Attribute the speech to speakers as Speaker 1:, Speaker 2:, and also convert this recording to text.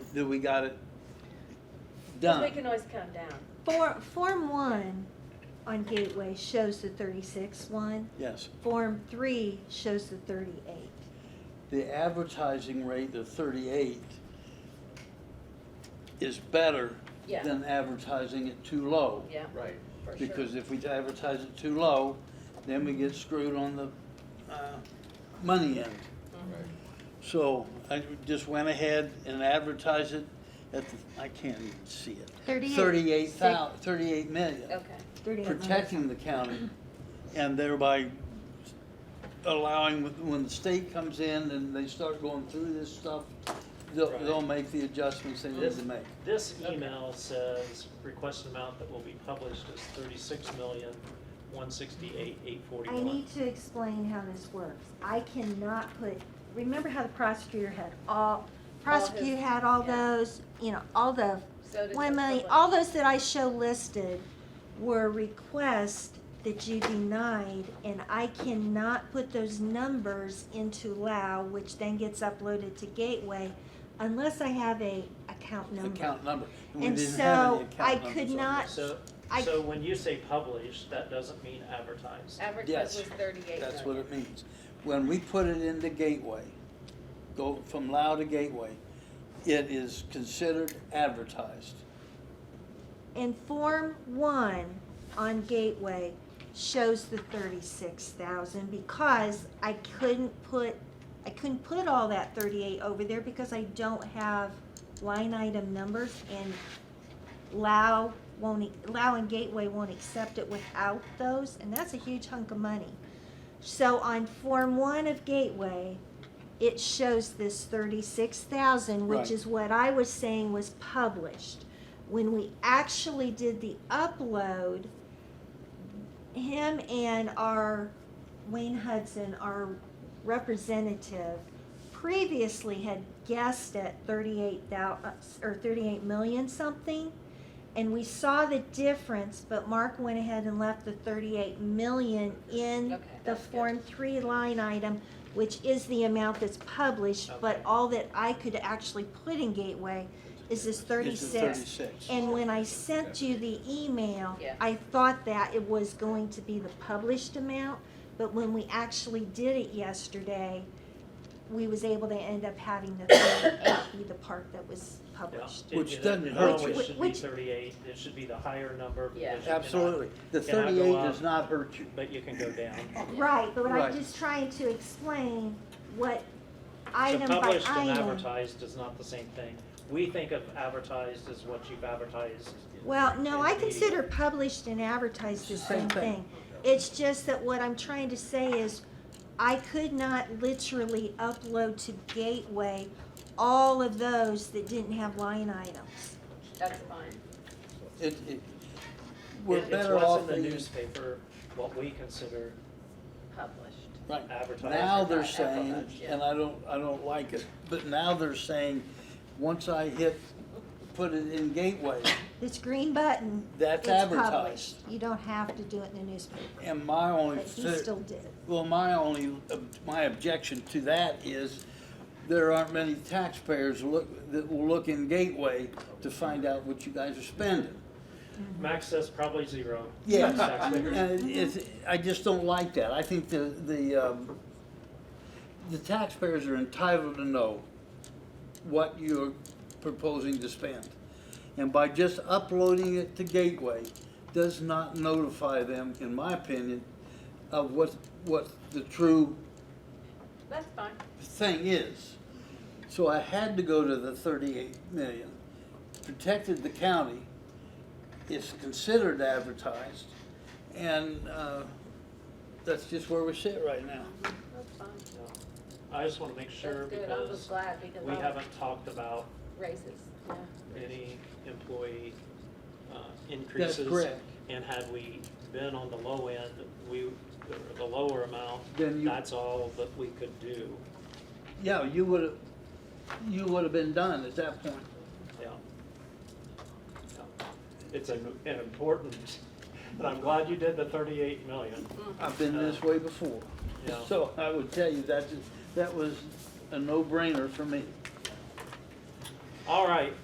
Speaker 1: that we got it
Speaker 2: Because we
Speaker 1: done.
Speaker 2: can always come down.
Speaker 3: For, Form one on Gateway shows the thirty-six one,
Speaker 1: Yes.
Speaker 3: Form three shows the thirty-eight.
Speaker 1: The advertising rate of thirty-eight is better
Speaker 2: Yeah.
Speaker 1: than advertising it too low.
Speaker 2: Yeah,
Speaker 4: Right.
Speaker 2: for sure.
Speaker 1: Because if we advertise it too low, then we get screwed on the, uh, money end.
Speaker 2: Mm-hmm.
Speaker 4: Right.
Speaker 1: So I just went ahead and advertised it at, the- I can't even see it.
Speaker 3: Thirty-eight.
Speaker 1: Thirty-eight thou, thirty-eight million.
Speaker 2: Okay.
Speaker 3: Thirty-eight million.
Speaker 1: protecting the county and thereby allowing, when the state comes in and they start going through this stuff, they'll,
Speaker 5: Right.
Speaker 1: they'll make the adjustments they need to make.
Speaker 5: This email says request amount that will be published is thirty-six million, one sixty-eight, eight
Speaker 3: I
Speaker 5: forty-one.
Speaker 3: need to explain how this works. I cannot put, remember how the prosecutor had all, prosecute had all
Speaker 2: yeah.
Speaker 3: those, you know, all the
Speaker 2: So does
Speaker 3: Well,
Speaker 2: the
Speaker 3: Melanie,
Speaker 2: public.
Speaker 3: all those that I show listed were requests that you denied, and I cannot put those numbers into LAO, which then gets uploaded to Gateway, unless I have a account
Speaker 1: The
Speaker 3: number.
Speaker 1: Account number. we
Speaker 3: And
Speaker 1: didn't have any
Speaker 3: so
Speaker 1: account
Speaker 3: I
Speaker 1: numbers
Speaker 3: could
Speaker 1: on
Speaker 3: not-
Speaker 1: this.
Speaker 5: So,
Speaker 3: I-
Speaker 5: so when you say published, that doesn't mean advertised.
Speaker 2: Average
Speaker 1: Yes.
Speaker 2: was thirty-eight
Speaker 1: That's what
Speaker 2: million.
Speaker 1: it means. When we put it into Gateway, go from Lao to Gateway, it is considered advertised.
Speaker 3: And Form One on Gateway shows the thirty-six thousand, because I couldn't put, I couldn't put all that thirty-eight over there because I don't have line item numbers, and Lao won't, e- Lao and Gateway won't accept it without those, and that's a huge hunk of money. So on Form One of Gateway, it shows this thirty-six thousand,
Speaker 1: Right.
Speaker 3: which is what I was saying was published. When we actually did the upload, him and our, Wayne Hudson, our representative, previously had guessed at thirty-eight thou, uh, or thirty-eight million something. And we saw the difference, but Mark went ahead and left the thirty-eight million in
Speaker 2: Okay,
Speaker 3: the
Speaker 2: that's good.
Speaker 3: Form Three line item, which is the amount that's published, but
Speaker 5: Okay.
Speaker 3: all that I could actually put in Gateway is this
Speaker 1: It's a
Speaker 3: thirty-six.
Speaker 1: Thirty-six.
Speaker 3: And when I sent you the email,
Speaker 2: Yeah.
Speaker 3: I thought that it was going to be the published amount, but when we actually did it yesterday, we was able to end up having the thirty-eight be the part that was
Speaker 5: Yeah.
Speaker 3: published.
Speaker 5: It-
Speaker 1: Which
Speaker 5: it-
Speaker 1: doesn't
Speaker 5: It
Speaker 1: hurt
Speaker 3: you.
Speaker 5: always should be
Speaker 3: Which-
Speaker 5: thirty-eight, it should be the higher number. because
Speaker 2: Yeah.
Speaker 5: you cannot-
Speaker 1: Absolutely. The
Speaker 5: Can I go
Speaker 1: thirty-eight
Speaker 5: up?
Speaker 1: does not hurt you.
Speaker 5: But you can go down.
Speaker 3: Right, but
Speaker 1: Right.
Speaker 3: I'm just trying to explain what
Speaker 5: So
Speaker 3: item by
Speaker 5: published and
Speaker 3: item.
Speaker 5: advertised is not the same thing. We think of advertised as what you've advertised.
Speaker 3: Well, no, I
Speaker 5: in the-
Speaker 3: consider published and advertised the
Speaker 1: Same
Speaker 3: same
Speaker 1: thing.
Speaker 3: thing. It's just that what I'm trying to say is, I could not literally upload to Gateway all of those that didn't have line items.
Speaker 2: That's fine.
Speaker 1: It, it, we're
Speaker 5: It-
Speaker 1: better off.
Speaker 5: It's what's in the
Speaker 1: being-
Speaker 5: newspaper, what we consider
Speaker 2: Published.
Speaker 1: Right.
Speaker 5: advertising.
Speaker 1: Now they're
Speaker 2: Right,
Speaker 1: saying,
Speaker 2: advertised, yeah.
Speaker 1: and I don't, I don't like it, but now they're saying, once I hit, put it in Gateway,
Speaker 3: This green button,
Speaker 1: that's
Speaker 3: it's
Speaker 1: advertised.
Speaker 3: published. You don't have to do it in the newspaper,
Speaker 1: And my only,
Speaker 3: but he
Speaker 1: fi-
Speaker 3: still did.
Speaker 1: well, my only, ob- my objection to that is there aren't many taxpayers look, that will look in Gateway to find out what you guys are spending.
Speaker 5: Max says probably zero.
Speaker 1: Yes,
Speaker 5: Max
Speaker 1: and
Speaker 5: figures.
Speaker 1: it's, I just don't like that. I think the, the, um, the taxpayers are entitled to know what you're proposing to spend. And by just uploading it to Gateway does not notify them, in my opinion, of what, what the true
Speaker 2: That's fine.
Speaker 1: thing is. So I had to go to the thirty-eight million, protected the county, it's considered advertised, and, uh, that's just where we sit right now.
Speaker 2: That's fine.
Speaker 5: No. I just want to make sure
Speaker 2: That's good. I was
Speaker 5: because
Speaker 2: glad because
Speaker 5: we
Speaker 2: all
Speaker 5: haven't talked about
Speaker 2: raises. Yeah.
Speaker 5: any employee uh, increases.
Speaker 1: correct.
Speaker 5: And had we been on the low end, we, or the lower amount,
Speaker 1: Then you-
Speaker 5: that's all that we could do.
Speaker 1: Yeah, you would've, you would've been done at that point.
Speaker 5: Yeah. Yeah. It's an an important, and I'm glad you did the 38 million.
Speaker 1: I've been this way before.
Speaker 5: Yeah.
Speaker 1: So I would tell you, that, that was a no-brainer for me.
Speaker 5: All right,